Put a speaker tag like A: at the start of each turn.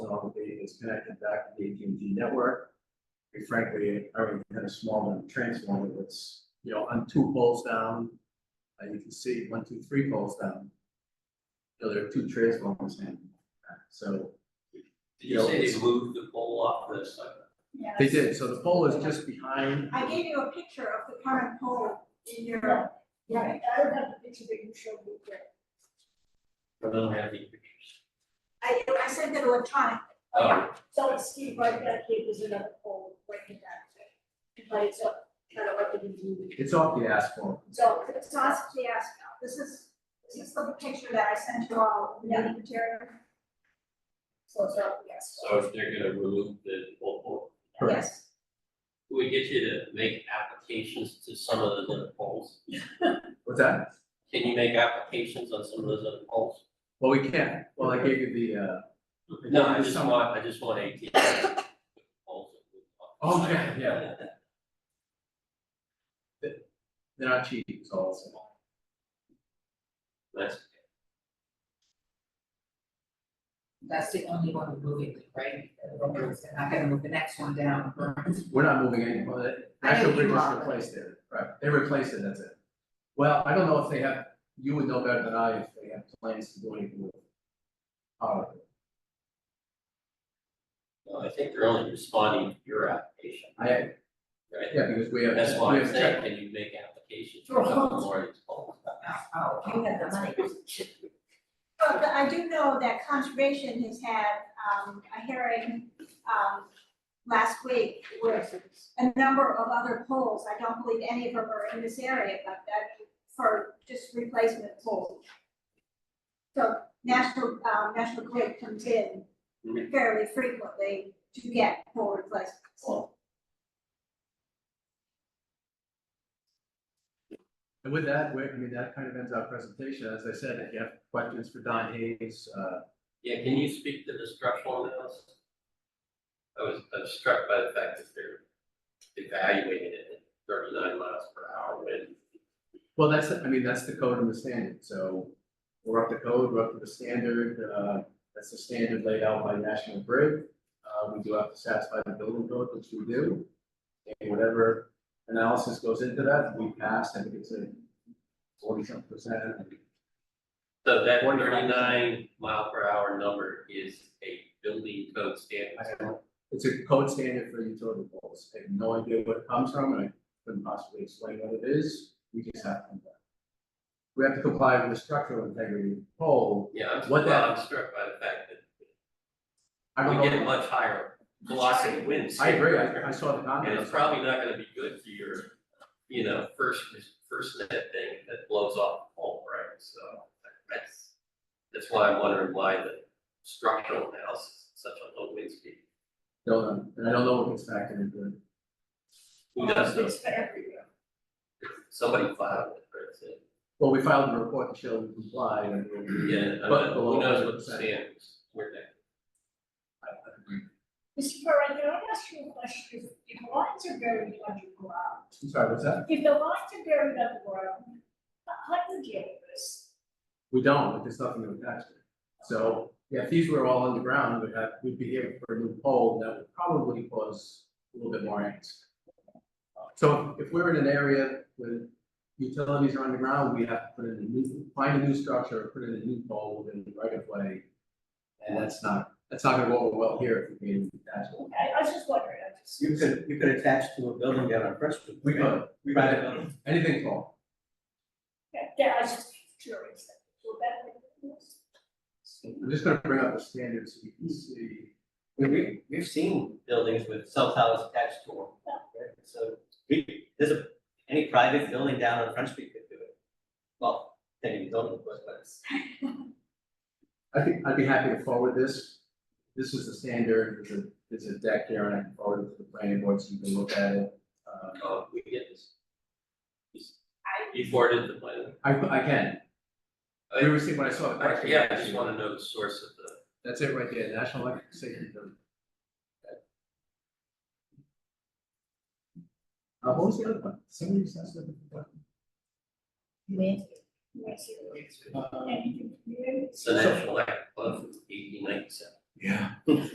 A: probably is connected back to the AT&T network. We frankly are in a small transformer that's, you know, on two poles down, uh, you can see one, two, three poles down. You know, there are two transformers in, uh, so
B: Did you say they moved the pole off the side?
C: Yes.
A: they did, so the pole is just behind.
C: I gave you a picture of the current pole in your,
D: Yeah, I don't have the picture that you showed me there.
B: I don't have any pictures.
C: I, I sent it electronically.
B: Oh,
D: So it's Steve right back here, there's another pole right in that thing. But it's up, kind of up in the,
A: It's off the asphalt.
C: So it's not the asphalt. This is, this is the picture that I sent you all, the meeting material.
D: so it's up, yes.
B: so if they're gonna remove the pole, pole,
C: Yes.
B: can we get you to make applications to some of those other poles?
A: What's that?
B: Can you make applications on some of those other poles?
A: Well, we can. Well, I gave you the, uh.
B: No, I just
A: Some-
B: want, I just want AT. poles that move off the
A: Okay,
B: side.
A: yeah. They're not cheap, it's all.
B: That's,
E: That's the only one we're moving, right? They're not gonna move the next one down.
A: We're not moving any, well, that-
E: I know
A: actually,
E: you
A: we're just
E: are, but-
A: replaced it, right, they replaced it, that's it. Well, I don't know if they have, you would know better than I if they have plans to do anything with. it. Uh,
B: no, I think they're only responding to your application,
A: I,
B: right?
A: yeah, because we have.
B: That's
A: we
B: why I'm
A: have
B: saying,
A: check-
B: can you make applications for some of Lori's poles?
E: Oh, you have the money.
C: Oh, But I do know that conservation has had, um, a hearing, um, last week with a number of other poles. I don't believe any of them are in this area, but that for just replacement poles. So National, um, National Grid comes in fairly frequently to get pole replacements.
A: And with that, we I mean, that kind of ends our presentation, as I said, if you have questions for Don Hayes, uh,
B: Yeah, can you speak to the structural analysis? I was, I was struck by the fact that they're evaluating it at thirty-nine miles per hour wind.
A: Well, that's, I mean, that's the code and the standard, so we're up to code, we're up to the standard, uh, that's the standard laid out by National Grid. Uh, we do have to satisfy the building code, which we do. And whatever analysis goes into that, we pass, I think it's a forty something percent.
B: So that
A: 45.
B: thirty-nine mile per hour number is a building code
A: I
B: standard.
A: don't know. It's a code standard for utility poles, I have no idea where it comes from, and I couldn't possibly explain what it is, we just have to. comply. We have to comply with the structural integrity of the pole,
B: Yeah, I'm,
A: What
B: well,
A: that-
B: I'm struck by the fact that
A: I don't know.
B: we get much higher velocity winds.
A: I agree, I, I saw the
B: And
A: comment.
B: it's probably not gonna be good for your, you know, first, first net thing that blows off the pole, right? So that's, that's why I'm wondering why the structural analysis is such a low wind speed.
A: Don't know, and I don't know what gets factored into it.
B: Who does
D: It's
B: this?
D: for everywhere.
B: Somebody filed it, right? so,
A: Well, we filed a report to show we comply and. we'll-
B: Yeah, I
A: But
B: mean,
A: below
B: who knows what the
A: 100%.
B: standards, where that.
A: I- I agree.
D: Mr. Perrin, can I ask you a question? If- If lines are buried underground,
A: I'm sorry, what's that?
D: if the lines are buried underground, how how do you deal with this?
A: We don't, but there's nothing to attach to. So, yeah, if these were all on the ground, we'd have, we'd be here for a new poll that would probably cause a little bit more angst. So if we're in an area with utilities are underground, we have to put in a new, find a new structure, put in a new pole within the right of way. And that's not, that's not gonna go over well here if we can attach one.
D: I, I was just wondering, I just.
F: You could, you could attach to a building down on Preston. Street.
A: We could,
F: We
A: right.
F: could.
A: anything tall.
D: Yeah, Yeah, I was just curious. Will that make a difference?
A: I'm just gonna bring up the standards so you can see.
F: We, we, we've seen buildings with cell towers attached to them. right? So we, there's a, any private building down on Front Street could do it. Well, then you don't, of course, but it's.
A: I think, I'd be happy to forward this. This is the standard, there's a, there's a deck here and I can forward it to the planning board so you can look at it. Uh,
B: Oh, we get this.
C: I-
B: You forwarded the plan.
A: I, I can. You ever seen when I saw the question?
B: Yeah, I just wanna know the source of the.
A: That's it right there, National Electric Safety. Building. Uh, what was the other one? Somebody just asked about.
D: Yes, you-
B: It's
A: the- uh,
D: Anything, you
B: the National Act of eighteen ninety-seven.
A: Yeah.